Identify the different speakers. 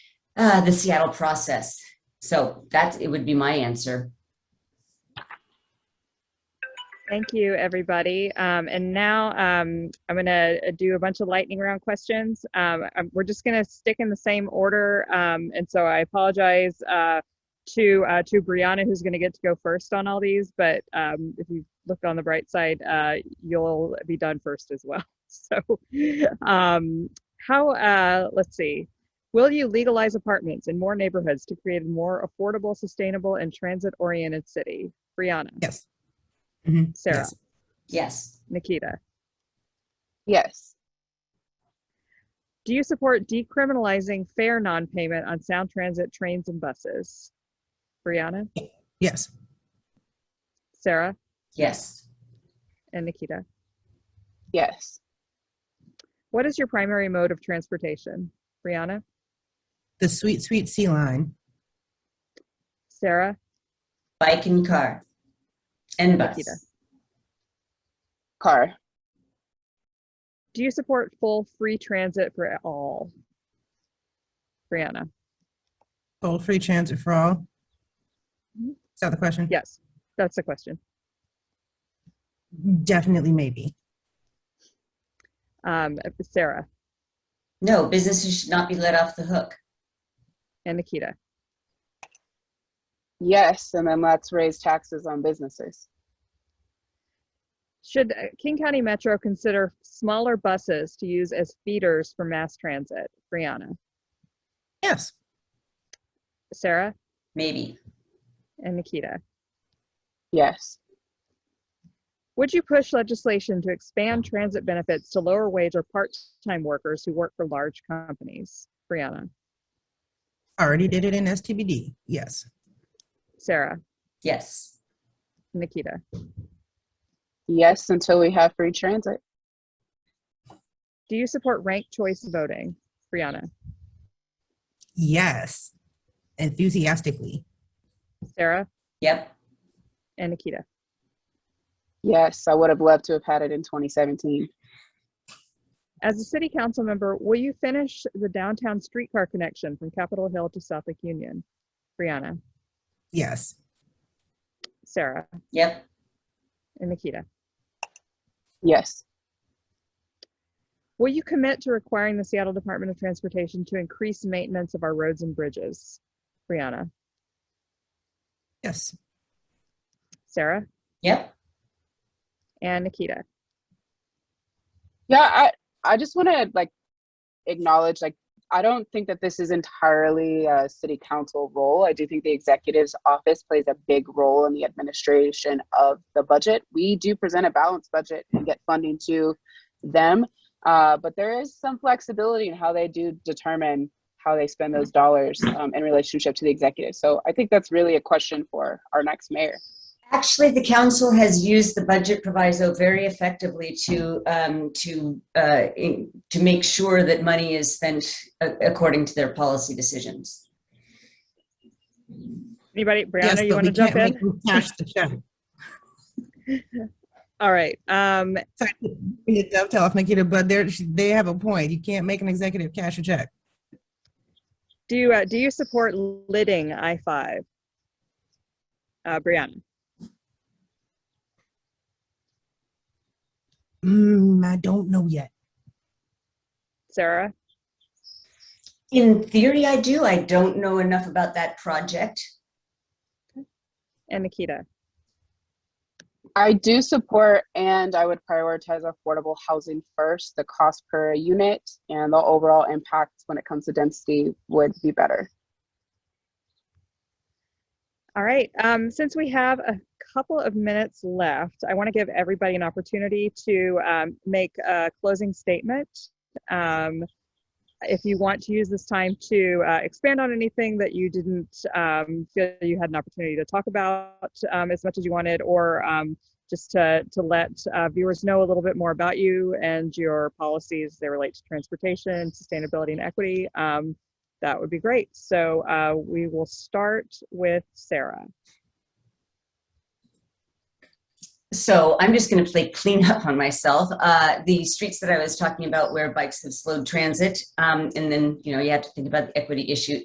Speaker 1: Uh, the Seattle process. So that it would be my answer.
Speaker 2: Thank you, everybody. Um, and now um, I'm going to do a bunch of lightning round questions. Um, I'm- we're just going to stick in the same order. Um, and so I apologize uh, to uh, to Brianna, who's going to get to go first on all these. But um, if you look on the bright side, uh, you'll be done first as well. So um, how? Uh, let's see. Will you legalize apartments in more neighborhoods to create a more affordable, sustainable, and transit-oriented city? Brianna,
Speaker 3: Yes.
Speaker 2: Sarah.
Speaker 3: Yes.
Speaker 1: Yes.
Speaker 2: Nikita,
Speaker 4: Yes.
Speaker 2: do you support decriminalizing fare non-payment on Sound Transit trains and buses? Brianna,
Speaker 3: Yes.
Speaker 2: Sarah,
Speaker 1: Yes.
Speaker 2: and Nikita.
Speaker 4: Yes.
Speaker 2: What is your primary mode of transportation? Brianna,
Speaker 3: The sweet, sweet sea line.
Speaker 2: Sarah,
Speaker 1: Bike and car. And bus.
Speaker 2: Nikita.
Speaker 4: Car.
Speaker 2: do you support full free transit for all? Brianna,
Speaker 3: Full free transit for all.
Speaker 2: Mm-hmm.
Speaker 3: Is that the question?
Speaker 2: yes, that's the question.
Speaker 3: Definitely, maybe.
Speaker 2: Um, Sarah
Speaker 1: No, businesses should not be let off the hook.
Speaker 2: and Nikita.
Speaker 4: Yes. And then let's raise taxes on businesses.
Speaker 2: Should uh, King County Metro consider smaller buses to use as feeders for mass transit? Brianna,
Speaker 3: Yes.
Speaker 2: Sarah,
Speaker 1: Maybe.
Speaker 2: and Nikita.
Speaker 4: Yes.
Speaker 2: Would you push legislation to expand transit benefits to lower wage or part-time workers who work for large companies? Brianna,
Speaker 3: Already did it in STBD. Yes.
Speaker 2: Sarah,
Speaker 1: Yes.
Speaker 2: Nikita.
Speaker 4: Yes. Until we have free transit.
Speaker 2: Do you support ranked choice voting? Brianna,
Speaker 3: Yes. Enthusiastically.
Speaker 2: Sarah,
Speaker 1: Yep.
Speaker 2: and Nikita.
Speaker 4: Yes. I would have loved to have had it in 2017.
Speaker 2: As a city council member, will you finish the downtown streetcar connection from Capitol Hill to South Lake Union? Brianna,
Speaker 3: Yes.
Speaker 2: Sarah,
Speaker 1: Yep.
Speaker 2: and Nikita.
Speaker 4: Yes.
Speaker 2: Will you commit to requiring the Seattle Department of Transportation to increase maintenance of our roads and bridges? Brianna,
Speaker 3: Yes.
Speaker 2: Sarah,
Speaker 1: Yep.
Speaker 2: and Nikita.
Speaker 4: Yeah. I, I just want to like acknowledge like, I don't think that this is entirely a city council role. I do think the executive's office plays a big role in the administration of the budget. We do present a balanced budget and get funding to them, uh, but there is some flexibility in how they do determine how they spend those dollars um, in relationship to the executive. So I think that's really a question for our next mayor.
Speaker 1: Actually, the council has used the budget proviso very effectively to um, to uh, in, to make sure that money is spent a- according to their policy decisions.
Speaker 2: Anybody,
Speaker 3: Yes,
Speaker 2: Brianna, you
Speaker 3: but
Speaker 2: want
Speaker 3: we
Speaker 2: to jump
Speaker 3: can't
Speaker 2: in?
Speaker 3: make them Cash the check.
Speaker 2: All right. Um,
Speaker 3: Sorry, to dovetail off Nikita, but they're, they have a point. You can't make an executive cash a check.
Speaker 2: do you, uh, do you support lidding I five? Uh, Brianna,
Speaker 3: Mm, I don't know yet.
Speaker 2: Sarah,
Speaker 1: In theory, I do. I don't know enough about that project.
Speaker 2: and Nikita.
Speaker 4: I do support and I would prioritize affordable housing first. The cost per unit and the overall impact when it comes to density would be better.
Speaker 2: All right. Um, since we have a couple of minutes left, I want to give everybody an opportunity to um, make a closing statement. Um, if you want to use this time to uh, expand on anything that you didn't um, feel you had an opportunity to talk about um, as much as you wanted, or um, just to, to let uh, viewers know a little bit more about you and your policies they relate to transportation, sustainability, and equity, um, that would be great. So uh, we will start with Sarah.
Speaker 1: So I'm just going to play cleanup on myself. Uh, the streets that I was talking about where bikes have slowed transit, um, and then you know you have to think about the equity issue